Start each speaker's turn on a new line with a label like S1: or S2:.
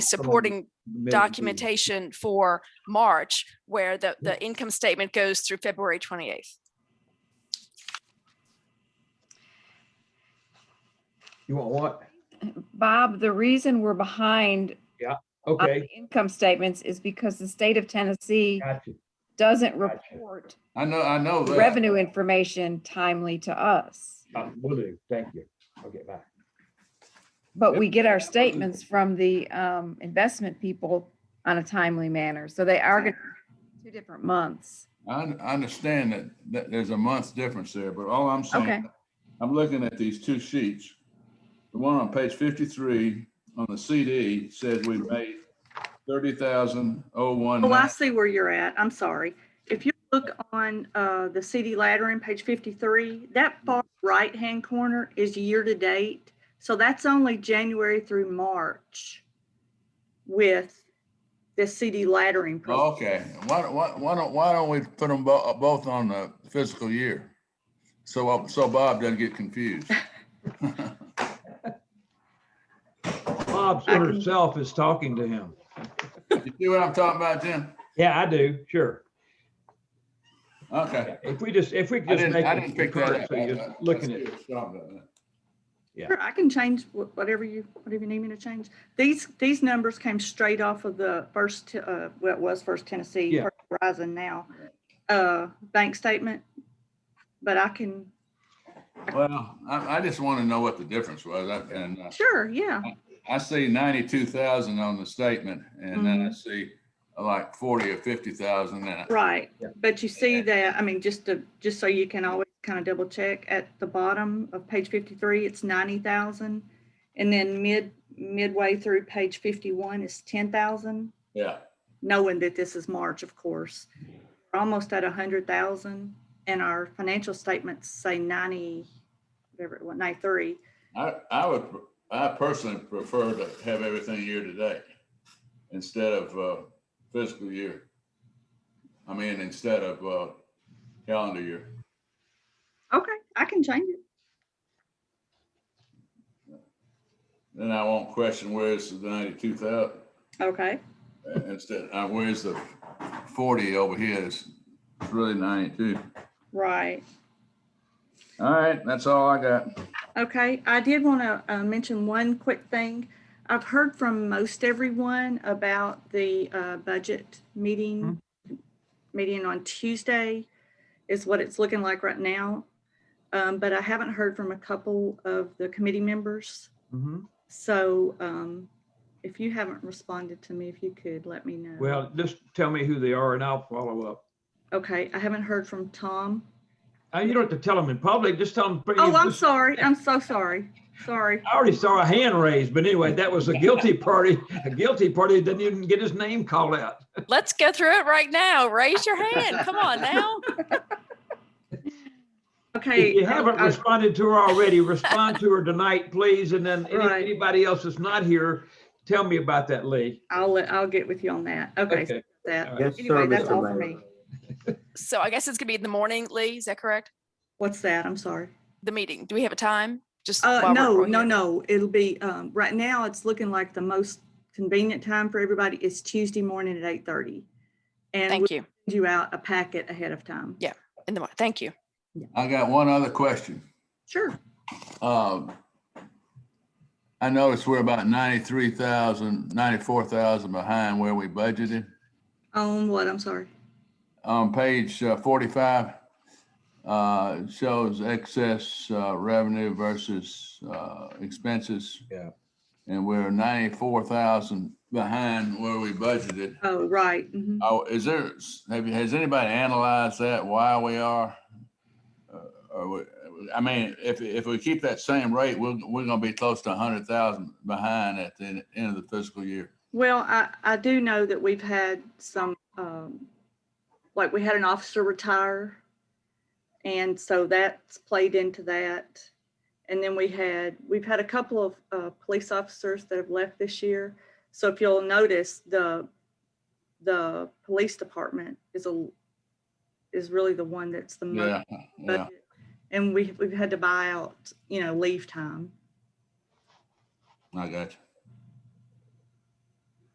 S1: supporting
S2: Mid-
S1: documentation for March where the, the income statement goes through February 28th.
S2: You want what?
S3: Bob, the reason we're behind on the
S2: Okay,
S3: income statements is because the state of Tennessee
S2: gotcha.
S3: doesn't
S2: Gotcha. Oh,
S3: report
S4: I know, I know that.
S3: revenue information timely to us.
S2: Uh, Will do. Thank you. Okay, bye.
S3: But we get our statements from the um, investment people on a timely manner. So they are going to two different months.
S4: I, un- I understand that, that there's a month's difference there, but all I'm
S3: Okay.
S4: saying, I'm looking at these two sheets. The one on page fifty-three on the CD says we made thirty thousand oh one.
S5: Oh, I see where you're at. I'm sorry. If you look on uh, the CD Ladder in page 53, that far right-hand corner is year-to-date. So that's only January through March with the CD
S4: Oh,
S5: laddering. program.
S4: Okay, why, don't- why, why don't, why don't we put them bo- both on the fiscal year? So, uh, so Bob doesn't get confused.
S6: Bob
S5: I
S6: sort
S5: can-
S6: of self is talking to him.
S4: You see what I'm talking about, Jim?
S6: Yeah, I do, sure.
S4: Okay.
S6: If we just, if we could
S4: I
S6: just
S4: didn't,
S6: make
S4: I didn't
S6: it
S4: pick that up.
S6: concurrent, so you're just looking at,
S5: Sure, I can change wh- whatever you, whatever you need me to change. These, these numbers came straight off of the first, Te- uh, well, it was First Tennessee,
S6: Yeah.
S5: First Horizon now, uh, bank statement. But I can,
S4: Well, I, I just want to know what the difference was. I- And uh,
S5: sure, yeah.
S4: I see ninety-two thousand on the statement and then I see uh, like forty or fifty thousand and I-
S5: Right,
S6: Yeah.
S5: but you see that, I mean, just to, just so you can always kind of double check, at the bottom of page fifty-three, it's ninety thousand. And then mid, midway through page fifty-one is ten thousand,
S4: yeah.
S5: knowing that this is March, of course. We're Almost at a hundred thousand, and our financial statements say ninety, whatever, it was, ninety-three.
S4: I, I would, pr- I personally prefer to have everything year to date instead of uh, fiscal year. I mean, instead of uh, calendar year.
S5: Okay, I can change it.
S4: Then I won't question where's the ninety-two thousand.
S5: Okay,
S4: Instead, uh, where's the forty over here is it's really ninety-two.
S5: right.
S4: All right, that's all I got.
S5: Okay, I did want to uh, mention one quick thing. I've heard from most everyone about the uh, budget meeting.
S6: Hmm.
S5: Meeting on Tuesday is what it's looking like right now. Um, But I haven't heard from a couple of the committee members.
S6: Mhm.
S2: Mm-hmm.
S5: So um, if you haven't responded to me, if you could, let me know.
S6: well, just tell me who they are and I'll follow up.
S5: Okay, I haven't heard from Tom.
S6: Uh, You don't have to tell them in public, just tell them.
S5: Oh, I'm sorry. I'm so sorry. Sorry.
S6: I already saw a hand raised, but anyway, that was a guilty party. A guilty party didn't even get his name called out.
S1: Let's go through it right now. Raise your hand. Come on now.
S5: Okay. um,
S6: If you haven't
S5: I-
S6: responded to her already, respond to her tonight, please. And then any-
S5: Right.
S6: anybody else that's not here, tell me about that, Lee.
S5: I'll, let- I'll get with you on that. Okay, so
S6: Okay.
S5: that,
S6: All right.
S7: Yes,
S5: anyway,
S7: sir,
S5: that's all
S7: Mr.
S5: for
S7: Mayor.
S5: me.
S1: So I guess it's gonna be in the morning, Lee, is that correct?
S5: What's that? I'm sorry.
S1: The meeting, do we have a time? Just.
S5: Uh,
S1: while we're-
S5: no,
S1: we're
S5: no,
S1: here.
S5: no. It'll be, um, right now, it's looking like the most convenient time for everybody is Tuesday morning at eight thirty. And we'll
S1: Thank you.
S5: send you out a packet ahead of time.
S1: Yeah. In the, mor- thank you.
S4: I got one other question.
S5: Sure.
S4: Um, I noticed we're about ninety-three thousand, ninety-four thousand behind where we budgeted.
S5: On what? I'm sorry.
S4: On page uh, forty-five, uh, it shows excess uh, revenue versus uh, expenses.
S6: Yeah.
S4: And we're ninety-four thousand behind where we budgeted.
S5: Oh, right. mhm.
S4: Oh, is there, have you, has anybody analyzed that, why we are? Uh, Or, we- I mean, if, if we keep that same rate, we're, we're gonna be close to a hundred thousand behind at the end- end of the fiscal year.
S5: Well, I, I do know that we've had some, um, like we had an officer retire. And so that's played into that. And then we had, we've had a couple of, uh, police officers that have left this year. So if you'll notice, the, the police department is a, is really the one that's the
S4: Yeah,
S5: most.
S4: yeah.
S5: budget. And we, we've had to buy out, you know, leave time.
S4: I got you.